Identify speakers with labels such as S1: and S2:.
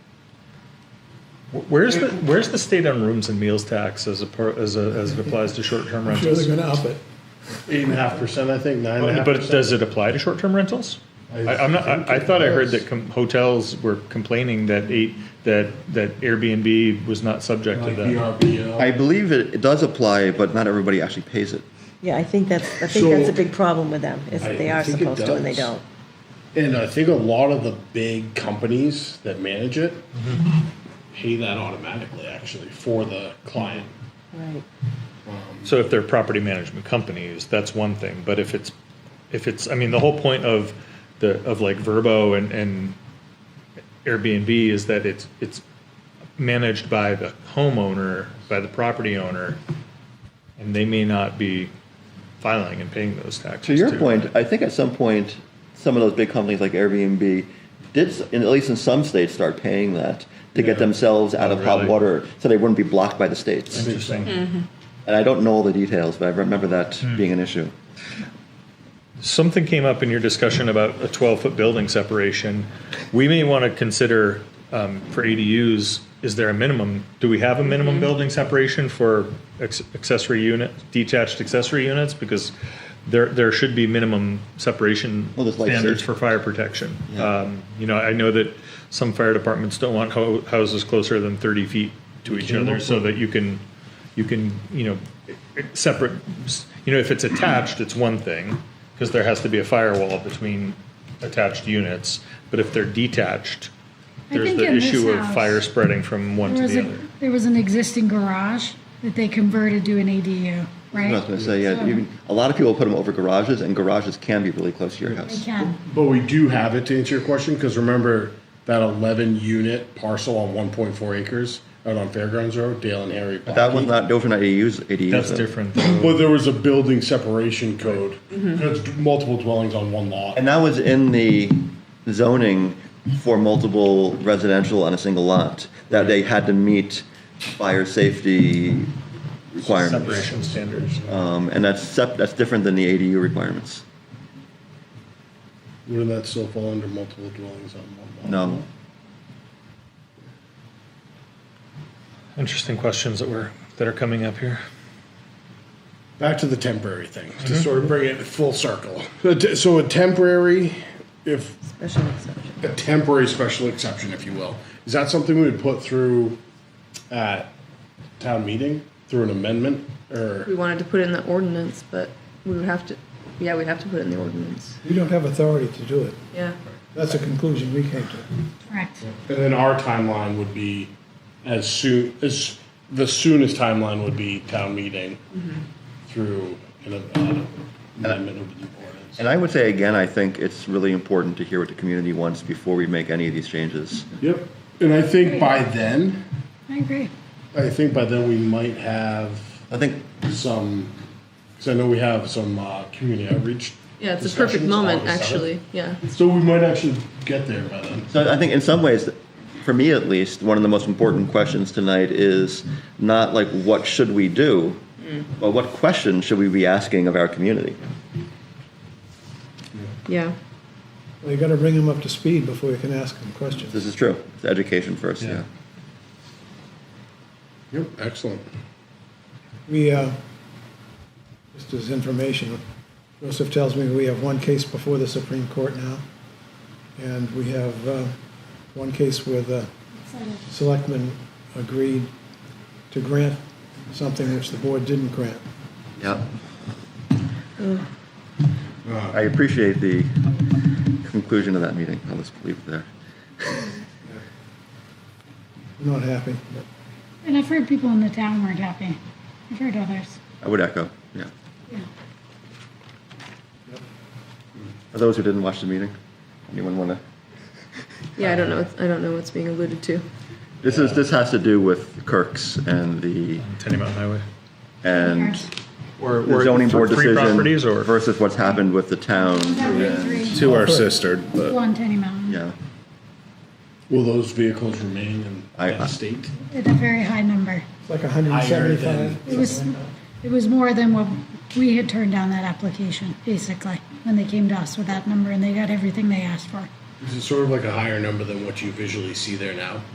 S1: Wh- Where's the where's the state on rooms and meals tax as a par, as a, as it applies to short term
S2: I'm sure they're
S1: rentals?
S2: gonna up it.
S3: Eight and a half percent, I think, nine and a half
S1: But
S3: percent.
S1: does it apply to short term rentals? I, I'm not. I, I thought I heard that com- hotels were complaining that eight that that Airbnb was not subject to
S3: Like
S1: that.
S3: BRB and all.
S4: I believe it, it does apply, but not everybody actually pays it.
S5: Yeah, I think that's, I think
S3: So-
S5: that's a big problem with them, is that they
S3: I
S5: are
S3: think it
S5: supposed to and they
S3: does.
S5: don't.
S3: And I think a lot of the big companies that manage it
S1: Mm-hmm.
S3: pay that automatically, actually, for the client.
S5: Right.
S1: So if they're property management companies, that's one thing. But if it's, if it's, I mean, the whole point of the, of like Verbo and, and Airbnb is that it's, it's managed by the homeowner, by the property owner, and they may not be filing and paying those taxes.
S4: To your
S1: too.
S4: point, I think at some point, some of those big companies like Airbnb did, s- in, at least in some states, start paying that to get
S1: Yeah.
S4: themselves out
S1: Oh,
S4: of hot
S1: really?
S4: water, so they wouldn't be blocked by the states.
S1: Interesting.
S4: And I don't know all the details, but I remember that
S1: Hmm.
S4: being an issue.
S1: Something came up in your discussion about a 12-foot building separation. We may want to consider, um, for ADUs, is there a minimum? Do we have a minimum building separation for ex- accessory unit, detached accessory units? Because there, there should be minimum separation
S4: Well, there's like
S1: standards
S4: safety.
S1: for fire protection.
S4: Yeah.
S1: Um, You know, I know that some fire departments don't want ho- houses closer than 30 feet to each other so that you can, you can, you know, it- it- separate, you know, if it's attached, it's one thing, because there has to be a firewall between attached units, but if they're detached,
S6: I
S1: there's
S6: think
S1: the
S6: in this
S1: issue of
S6: house-
S1: fire spreading from one
S6: There
S1: to
S6: was,
S1: the
S6: a,
S1: other.
S6: there was an existing garage that they converted to an ADU,
S4: I was going to
S6: right?
S4: say, yeah,
S6: So-
S4: even, a lot of people put them over garages, and garages can be really close to your
S6: They
S4: house.
S6: can.
S3: But we do have it to answer your question, because remember that eleven unit parcel on one point four acres out on Fairgrounds Road, Dale and Harry.
S4: That one's not overnight ADUs. ADUs
S1: That's
S4: though.
S1: different.
S3: But there was a building separation code.
S1: Mm-hmm.
S3: There's multiple dwellings on one lot.
S4: And that was in the zoning for multiple residential on a single lot, that they had to meet fire safety requirements.
S1: Separation standards.
S4: Um, and that's sep, that's different than the ADU requirements.
S3: Wouldn't that still fall under multiple dwellings on one lot?
S4: No,
S1: Interesting questions that were, that are coming up here.
S3: back to the temporary thing to sort of bring it full circle. So, t- so a temporary, if
S5: Special exception.
S3: a temporary special exception, if you will, is that something we would put through at town meeting through an amendment
S7: We
S3: or?
S7: wanted to put it in the ordinance, but we would have to, yeah, we'd have to put it in the ordinance.
S2: We don't have authority to do it.
S7: Yeah.
S2: That's a conclusion we came to.
S6: Correct.
S3: And then our timeline would be as soon as the soonest timeline would be town meeting through an uh, amendment of the ordinance.
S4: and I would say again, I think it's really important to hear what the community wants before we make any of these changes.
S3: Yep, and I think by then,
S6: I agree.
S3: I think by then we might have
S4: I think
S3: some, because I know we have some uh, community outreach.
S7: Yeah, it's a perfect
S3: discussions
S7: moment,
S3: on the
S7: actually, yeah.
S3: seventh. So we might actually get there by then.
S4: So I think in some ways, for me at least, one of the most important questions tonight is not like what should we do, but what question should we be asking of our community?
S7: Yeah.
S2: Well, you gotta bring them up to speed before you can ask them questions.
S4: This is true. It's education first. Yeah.
S3: Yep, excellent.
S2: We, uh, just as information, Joseph tells me we have one case before the Supreme Court now, and we have uh, one case where the selectmen agreed to grant something which the board didn't grant.
S4: Yeah.
S1: Uh,
S4: I appreciate the conclusion of that meeting. I'll just leave it there.
S2: I'm not happy, but
S6: And I've heard people in the town weren't happy. I've heard others.
S4: I would echo. Yeah.
S6: Yeah.
S4: For those who didn't watch the meeting, anyone want to?
S7: Yeah, I don't know, it's- I don't know what's being alluded to.
S4: This is this has to do with Kirk's and the
S1: Tenny Mountain Highway.
S4: and.
S1: Or
S4: the zoning board
S1: Three properties
S4: decision
S1: or?
S4: versus what's happened with the town.
S6: Two
S8: Two are sistered, but
S6: on Tenny Mountain.
S4: Yeah,
S3: Will those vehicles remain in
S4: I-
S3: the state?
S6: At a very high number.
S2: it's like
S3: Higher than-
S2: 175.
S6: It was, it was more than what we had turned down that application, basically, when they came to us with that number and they got everything they asked for.
S3: Is it sort of like a higher number than what you visually see there now?